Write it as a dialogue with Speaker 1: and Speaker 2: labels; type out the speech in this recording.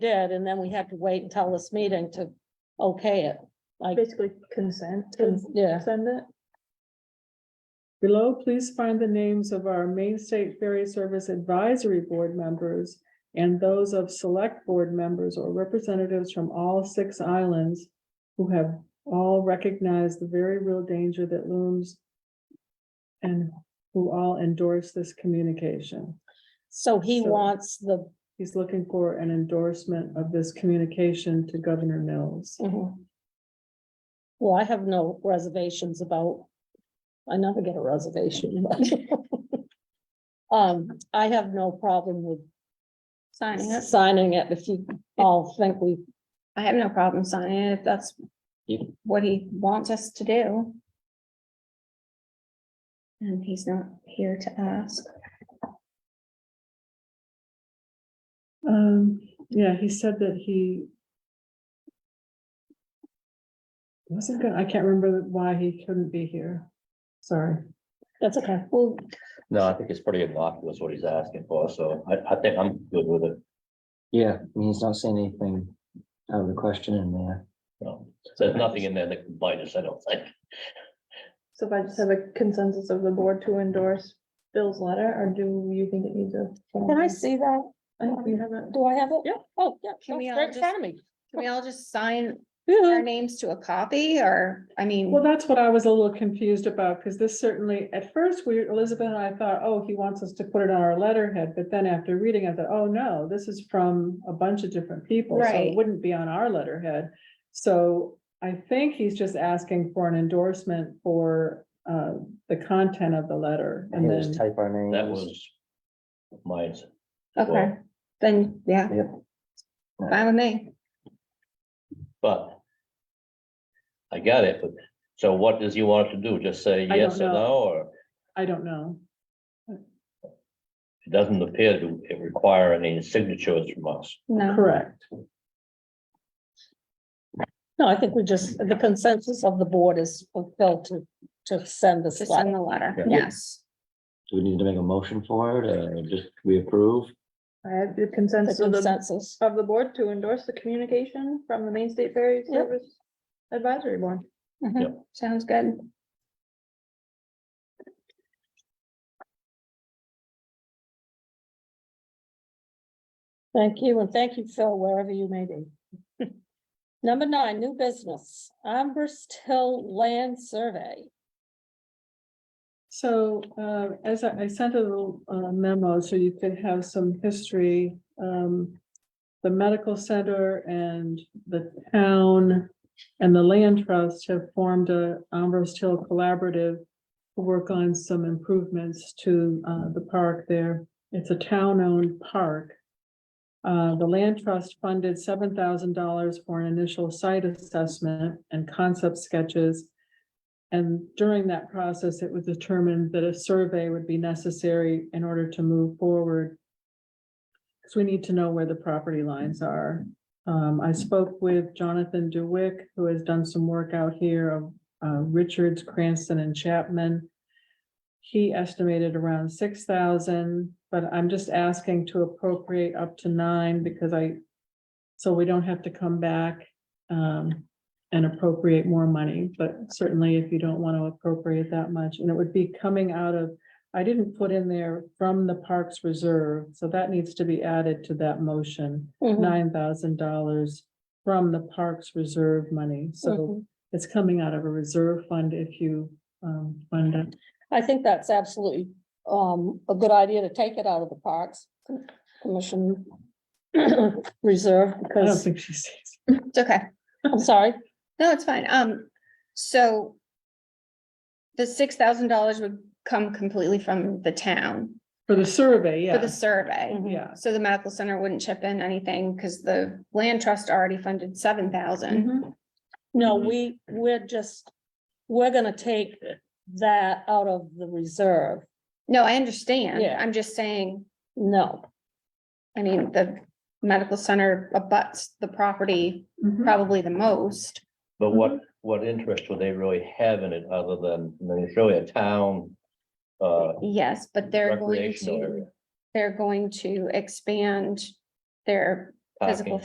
Speaker 1: did, and then we had to wait until this meeting to okay it. Like,
Speaker 2: Basically consent, and
Speaker 1: yeah,
Speaker 2: send it.
Speaker 3: Below, please find the names of our Main State Ferry Service Advisory Board members and those of select board members or representatives from all six islands who have all recognized the very real danger that looms and who all endorse this communication.
Speaker 1: so he
Speaker 3: So-
Speaker 1: wants the,
Speaker 3: He's looking for an endorsement of this communication to Governor Mills.
Speaker 4: Mm-hmm.
Speaker 1: well, I have no reservations about, I never get a reservation. but- Um, I have no problem with
Speaker 4: Signing it.
Speaker 1: signing it if you all think we,
Speaker 4: I have no problem signing it if that's what he wants us to do. And he's not here to ask.
Speaker 3: Um, yeah, he said that he. Wasn't good, I can't remember why he couldn't be here, sorry.
Speaker 1: that's okay.
Speaker 4: Well,
Speaker 5: No, I think it's pretty innocuous what he's asking for, so I, I think I'm good with it.
Speaker 6: Yeah, I mean, he's not saying anything out of the question in there.
Speaker 5: No, there's nothing in there that can bite us, I don't think.
Speaker 2: So if I just have a consensus of the board to endorse Bill's letter, or do you think it needs a?
Speaker 1: Can I see that?
Speaker 2: I think we have it.
Speaker 1: Do I have it? Yeah. Oh, yeah,
Speaker 4: Can we
Speaker 1: that's
Speaker 4: all
Speaker 1: right in
Speaker 4: just-
Speaker 1: front of me.
Speaker 4: can we all just sign our
Speaker 1: Woo-hoo.
Speaker 4: names to a copy or, I mean,
Speaker 3: Well, that's what I was a little confused about, because this certainly, at first, we, Elizabeth and I thought, oh, he wants us to put it on our letterhead, but then after reading, I thought, oh, no, this is from a bunch of different people, so
Speaker 4: Right.
Speaker 3: it wouldn't be on our letterhead. So I think he's just asking for an endorsement for, uh, the content of the letter, and
Speaker 6: He'll
Speaker 3: then.
Speaker 6: just type our names.
Speaker 5: That was mine.
Speaker 4: okay, then, yeah.
Speaker 6: Yep.
Speaker 4: Fine with me.
Speaker 5: But I got it, but so what does he want to do? Just say
Speaker 3: don't
Speaker 5: yes or
Speaker 3: know.
Speaker 5: no, or
Speaker 3: I don't know.
Speaker 5: it doesn't appear to require any signatures from us.
Speaker 4: No,
Speaker 3: Correct.
Speaker 1: No, I think we just, the consensus of the board is fulfilled to, to send this
Speaker 4: just
Speaker 1: letter.
Speaker 4: send the letter.
Speaker 6: Yeah.
Speaker 4: Yes.
Speaker 6: Do we need to make a motion for it or just we approve?
Speaker 2: I have the
Speaker 1: The
Speaker 2: consensus of the,
Speaker 1: consensus.
Speaker 2: of the board to endorse the communication from the Main State Ferry
Speaker 1: Yep.
Speaker 2: Service Advisory Board.
Speaker 4: Mhm.
Speaker 5: Yep.
Speaker 4: Sounds good.
Speaker 1: Thank you, and thank you, Phil, wherever you may be. Number nine, new business, Amber's Hill Land Survey.
Speaker 3: So uh, as I I sent a little uh, memo, so you could have some history. um, The medical center and the town and the land trust have formed a Ambrose Hill Collaborative to work on some improvements to uh, the park there. It's a town-owned park. Uh, The land trust funded seven thousand dollars for an initial site assessment and concept sketches. And during that process, it was determined that a survey would be necessary in order to move forward. Because we need to know where the property lines are. Um, I spoke with Jonathan DeWick, who has done some work out here of uh, Richards, Cranston and Chapman. He estimated around six thousand, but I'm just asking to appropriate up to nine because I, so we don't have to come back. Um, and appropriate more money, but certainly if you don't want to appropriate that much, and it would be coming out of, I didn't put in there from the Parks Reserve, so that needs to be added to that motion,
Speaker 4: Mm-hmm.
Speaker 2: Mm-hmm.
Speaker 1: Mhm,
Speaker 3: nine thousand dollars from the Parks Reserve money,
Speaker 4: Mm-hmm.
Speaker 3: so
Speaker 1: mhm.
Speaker 3: it's coming out of a reserve fund if you um fund it.
Speaker 1: I think that's absolutely um a good idea to take it out of the parks commission reserve
Speaker 3: I don't
Speaker 1: because,
Speaker 3: think she sees.
Speaker 4: It's okay.
Speaker 1: I'm sorry,
Speaker 4: No, it's fine. Um, so the six thousand dollars would come completely from the town
Speaker 3: For the survey,
Speaker 4: for the
Speaker 3: yeah,
Speaker 4: survey.
Speaker 1: Mhm.
Speaker 3: yeah.
Speaker 4: So the medical center wouldn't chip in anything because the land trust already funded seven thousand.
Speaker 3: Mhm.
Speaker 1: no,
Speaker 5: Mhm.
Speaker 1: we, we're just, we're gonna take that out of the reserve,
Speaker 4: No, I understand.
Speaker 1: Yeah.
Speaker 4: I'm just saying,
Speaker 1: no.
Speaker 4: I mean, the medical center abuts the property
Speaker 3: Mhm.
Speaker 4: probably the most.
Speaker 5: But what, what interest would they really have in it other than, I mean, it's really a town uh,
Speaker 4: Yes, but they're going
Speaker 5: recreational
Speaker 4: to,
Speaker 5: area?
Speaker 4: they're going to expand their physical
Speaker 5: parking.